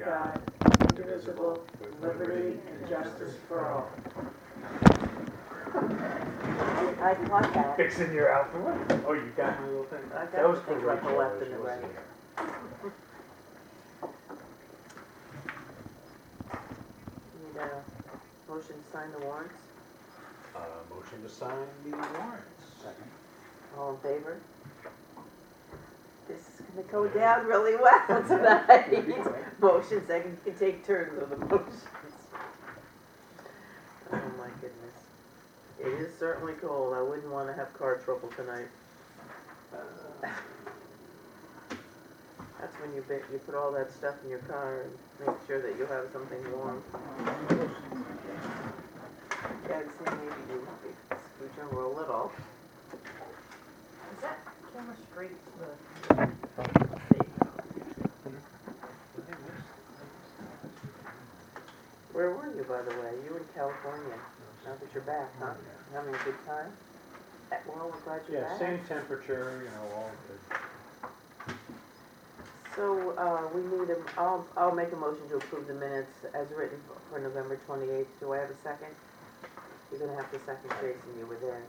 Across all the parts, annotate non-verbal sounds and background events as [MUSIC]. God, indivisible, with liberty and justice for all. I caught that. Fixing your outfit? Oh, you got my little thing. I got That was the for thing about the Rachel, left and she the wasn't right. here. Need a motion to sign the warrants? Uh, motion to sign the [LAUGHS] warrants. All in favor? This is gonna go down really well [LAUGHS] tonight. Motions, I can can take turns on the [LAUGHS] motions. Oh my goodness. It is certainly cold. I wouldn't wanna have car trouble tonight. Uh, That's when you bet, you put all that stuff in your car and make sure that you have something warm. Yeah, it's like maybe you scooch over a little. Is that camera straight to the? Where were you, by the way? You in California. Now that you're back, huh? Having a good time? Uh, Well, we're glad you're Yeah, back. same temperature, you know, all good. So, uh, we need a, I'll, I'll make a motion to approve the minutes as written for- for November twenty-eighth. Do I have a second? You're gonna have to second, Jason, you were there.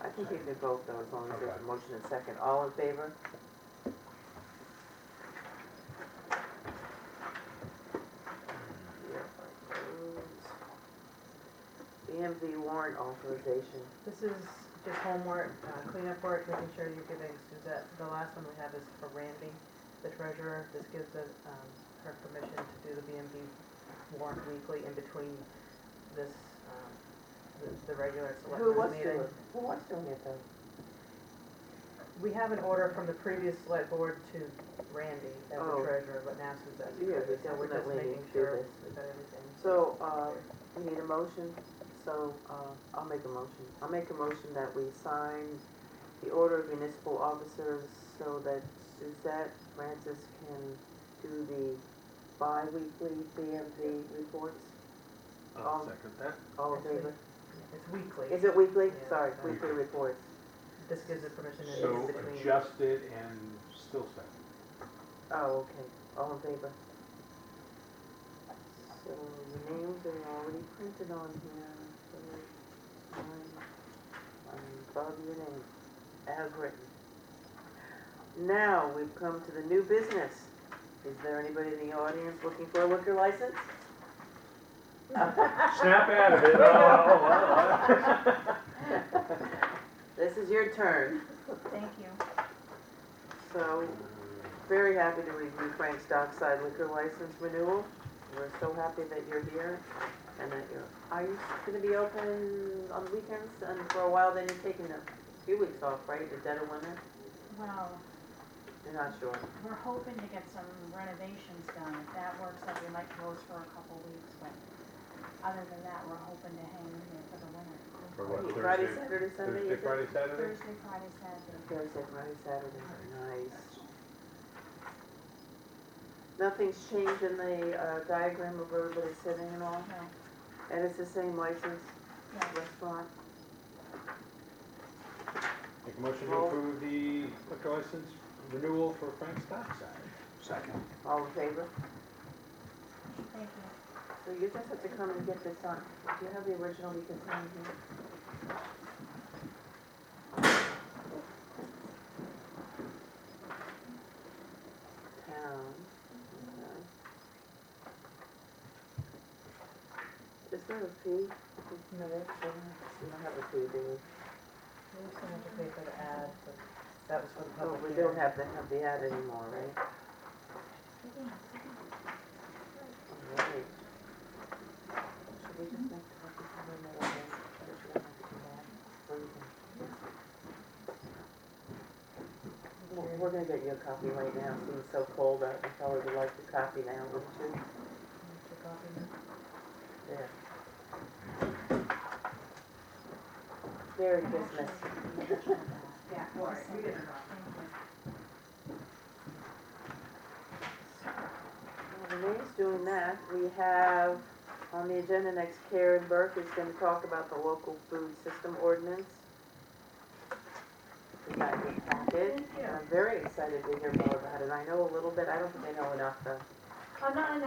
I think you can vote though, as long as there's a Okay. motion and second. All in favor? Yeah, opposed. BMV warrant authorization. This is just homework, uh, cleanup work, making sure you're giving Suzette, the last one we have is for Randy, the treasurer. This gives us, um, her permission to do the BMV warrant weekly in between this, um, the, the regular Who was selectmen's doing, meeting. who was doing it though? We have an order from the previous select board to Randy as the Oh. treasurer, but now Suzette's. Yeah, doing it, but so we're just definitely making do sure this. we've got everything. So, uh, we need a motion, so, uh, I'll make a motion. I'll make a motion that we sign the order of municipal officers so that Suzette Francis can do the bi-weekly BMV reports. I'll second that. All in favor? It's weekly. uh, Is it weekly? Yeah. Sorry, weekly reports. This gives us permission to do So uh, in between. adjusted and still [LAUGHS] second. Oh, okay, all in favor. So the names are already printed on here, so I'm, I'm above your name, as written. Now, we've come to the new business. Is there anybody in the audience looking for a liquor license? Snap out of it. Oh, oh, oh, oh. This is your turn, Thank you. so very happy to review Frank's Dockside liquor license renewal. We're so happy that you're here and that you're, are you gonna be open on weekends and for a while then you're taking a few weeks off, right, the dead of winter? Well, You're not sure. we're hoping to get some renovations done. If that works out, we might close for a couple weeks, but other than that, we're hoping to hang in there for the winter. For what, Friday, Thursday? Saturday, Sunday? you Thursday, Friday, said? Saturday? Thursday, Friday, Saturday. Thursday, Friday, Saturday, nice. Nothing's changed in the uh, diagram of where everybody's sitting and all, No, and it's the same license, yeah, restaurant, Make a motion to Roll. approve the liquor license renewal for Frank's Dockside. Second. all in favor? thank you. So you just have to come and get this on, do you have the original you can sign here? Town, okay. Is there a fee? No, there's, I don't have a fee, do we? there's someone to pay for the ad, but that was for the Oh, public we hearing. don't have the, have the ad anymore, right? All right. Should we just make copies of them or what? Or should I have to do that? What do you think? Well, We're gonna get you a copy right now, since it's so cold out, you probably would like the copy now, wouldn't you? Took off in- There. Very business. Yeah, Right, we did it Well, Renee's doing that, we have on the agenda next Karen Burke is gonna talk about the local food system ordinance. We got your packet, and I'm very excited to hear more about it, I know a little bit, I don't think I know enough though. I'm not in